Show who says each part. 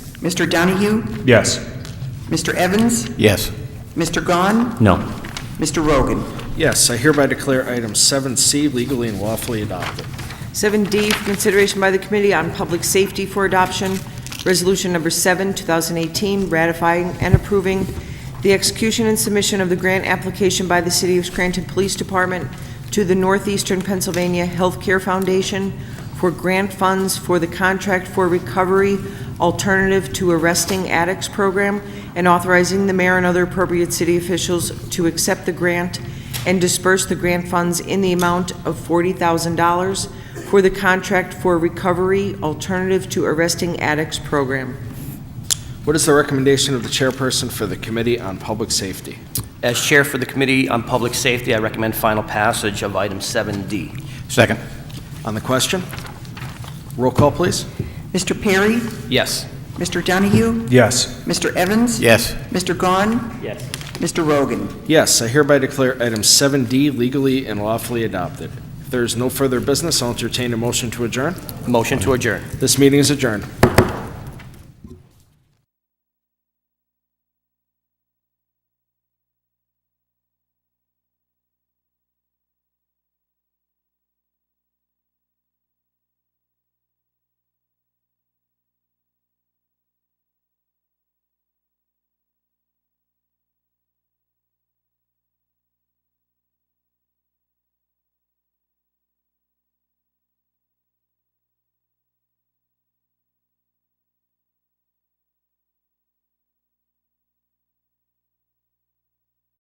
Speaker 1: Mr. Donahue?
Speaker 2: Yes.
Speaker 1: Mr. Evans?
Speaker 3: Yes.
Speaker 1: Mr. Gahn?
Speaker 3: No.
Speaker 1: Mr. Rogan?
Speaker 4: Yes, I hereby declare item 7C legally and lawfully adopted.
Speaker 5: 7D for consideration by the Committee on Public Safety for Adoption, Resolution Number 7, 2018, ratifying and approving the execution and submission of the grant application by the City of Scranton Police Department to the Northeastern Pennsylvania Healthcare Foundation for grant funds for the Contract for Recovery Alternative to Arresting Addicts Program, and authorizing the mayor and other appropriate city officials to accept the grant and disperse the grant funds in the amount of $40,000 for the Contract for Recovery Alternative to Arresting Addicts Program.
Speaker 4: What is the recommendation of the chairperson for the Committee on Public Safety?
Speaker 6: As Chair for the Committee on Public Safety, I recommend final passage of item 7D.
Speaker 3: Second.
Speaker 4: On the question? Roll call, please.
Speaker 1: Mr. Perry?
Speaker 6: Yes.
Speaker 1: Mr. Donahue?
Speaker 2: Yes.
Speaker 1: Mr. Evans?
Speaker 3: Yes.
Speaker 1: Mr. Gahn?
Speaker 6: Yes.
Speaker 1: Mr. Rogan?
Speaker 4: Yes, I hereby declare item 7D legally and lawfully adopted. If there is no further business, I'll entertain a motion to adjourn.
Speaker 6: Motion to adjourn.
Speaker 4: This meeting is adjourned.